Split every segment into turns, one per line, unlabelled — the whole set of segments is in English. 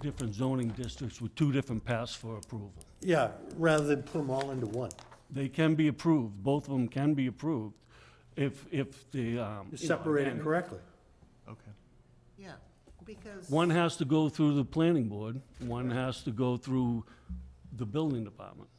different zoning districts with two different paths for approval.
Yeah, rather than put them all into one.
They can be approved, both of them can be approved if, if the, um. you know,
Separate it
again,
correctly.
Okay.
Yeah, because.
One has to go through the planning board, one has to go through the building department.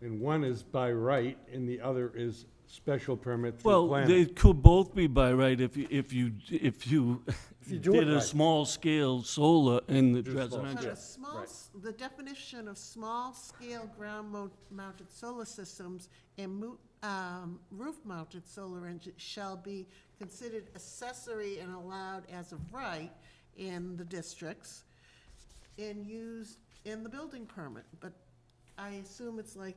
And one is by right, and the other is special permit through
Well, they
planning.
could both be by right if you, if you, if you
If you do it
did a
right.
small scale solar in the
Just small
But
residential.
a small, s- the definition of small-scale ground-mounted solar systems and mo- um, roof-mounted solar engine shall be considered accessory and allowed as of right in the districts and used in the building permit, but I assume it's like,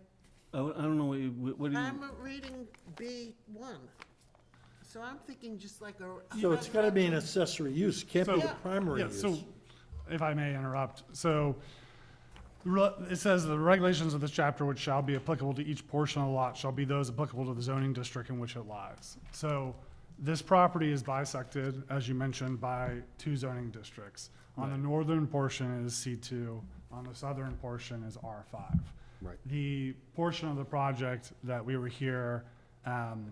I, I don't know, what you- what do you?
I'm reading B one. So I'm thinking just like a.
So it's gotta be an accessory use, can't be the
So-
primary
Yeah,
use.
so, if I may interrupt, so, the re- it says the regulations of this chapter which shall be applicable to each portion of the lot shall be those applicable to the zoning district in which it lies. So, this property is bisected, as you mentioned, by two zoning districts. On the northern portion is C two, on the southern portion is R five.
Right.
The portion of the project that we were here, um,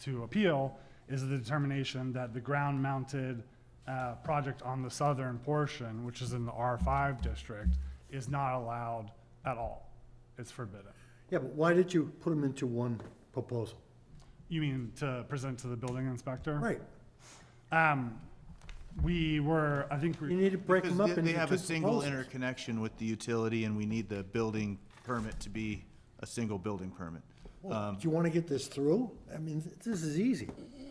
to appeal is the determination that the ground-mounted uh, project on the southern portion, which is in the R5 district, is not allowed at all. It's forbidden.
Yeah, but why did you put them into one proposal?
You mean to present to the building inspector?
Right,
Um, We were, I think,
you
we-
need to break
Because
them up
they-
into two
They have a single
proposals.
interconnection with the utility, and we need the building permit to be a single building permit. um
Well, Do you wanna get this through? I mean, th- this is easy,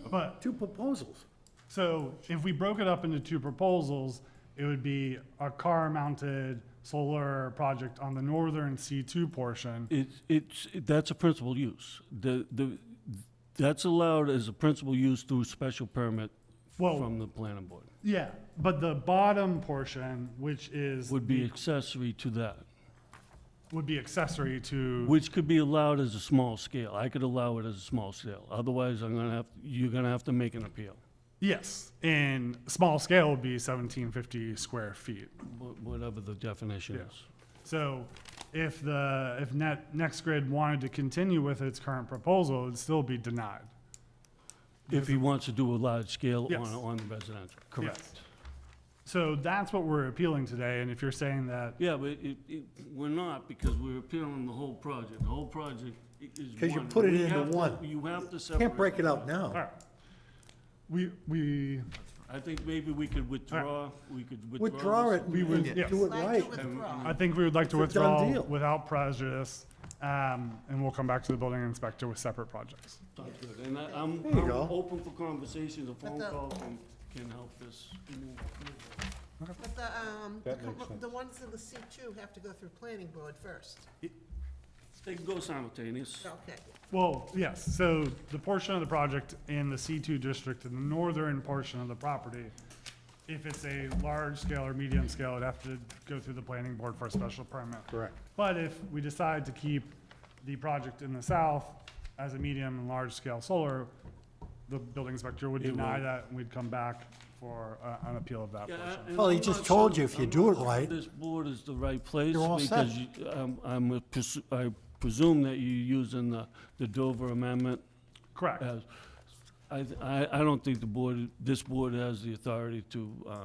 but
two proposals.
So if we broke it up into two proposals, it would be a car-mounted solar project on the northern C2 portion.
It's, it's, that's a principal use. The, the, that's allowed as a principal use through special permit
Well-
from the planning board.
Yeah, but the bottom portion, which is,
Would be accessory to that,
would be accessory to,
which could be allowed as a small scale. I could allow it as a small scale. Otherwise, I'm gonna have, you're gonna have to make an appeal.
yes, in small scale would be 1750 square feet.
wh- Whatever the definition
Yeah.
is.
So if the, if Net, Next Grid wanted to continue with its current proposal, it'd still be denied.
If he wants to do a large scale on,
Yes.
on residential, correct.
So that's what we're appealing today, and if you're saying that
Yeah, but it, it, we're not, because we're appealing the whole project. The whole project i- is one.
'Cause you put it
We
into
have to-
one.
You have to separate.
Can't break it out
All
now.
right. We, we,
I think maybe we could withdraw, we could withdraw.
Withdraw
this.
it, we would
Yeah.
do it
Like
right.
to withdraw.
I think we would like to
It's a done
withdraw
deal.
without prejudice, um, and we'll come back to the building inspector with separate projects.
Sounds good. And I, I'm,
you
I'm
go.
open for conversations, a phone
the-
call can, can help this move.
But the, um, the
That makes
com-
sense.
the ones in the C two have to go through planning board first.
They can go simultaneous.
Okay.
Well, yes, so the portion of the project in the C2 district, in the northern portion of the property, if it's a large scale or medium scale, it'd have to go through the planning board for a special permit.
Correct.
But if we decide to keep the project in the south as a medium and large scale solar, the building inspector would
It
deny
will.
that, and we'd come back for uh, an appeal of that
Yeah, uh,
portion.
and
Well, he
I'm
just
not
told
sure-
you if you
I'm
do
not
it
sure
right-
This board is the right place.
You're all set.
Because you- I'm, I'm, a presu- I presume that you're using the, the Dover amendment
Correct.
as, I, th- I, I don't think the board, this board has the authority to, uh,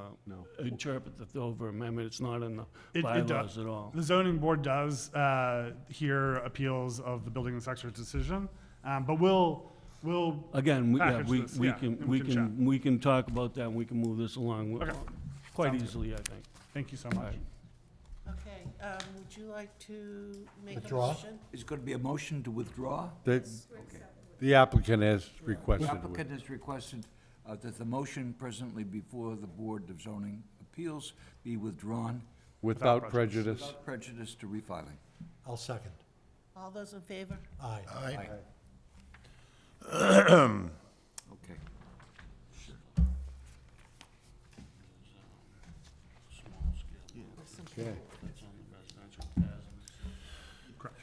interpret the Dover amendment. It's not in
It-
the
it does.
bylaws at all.
The zoning board does uh, hear appeals of the building inspector's decision, um, but we'll, we'll,
Again, we, yeah,
package
we,
this,
we
yeah,
can,
and
we
we can
can, we can talk about that, and we can move this along uh,
Okay.
quite
Sounds good.
easily, I think.
thank you so
All
much.
right.
Okay, um, would you like to make a
Withdraw?
motion?
Is going to be a motion to withdraw?
The, the applicant has requested.
The
with-
applicant has requested uh, that the motion presently before the Board of Zoning Appeals be withdrawn
Without prejudice.
without prejudice to refiling.
I'll second.
All those in favor?
Aye.
Okay.
Okay.
Correct.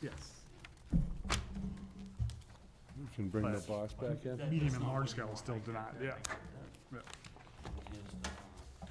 Yes.
You Can bring the boss back in?
Medium and large scale is still denied, yeah.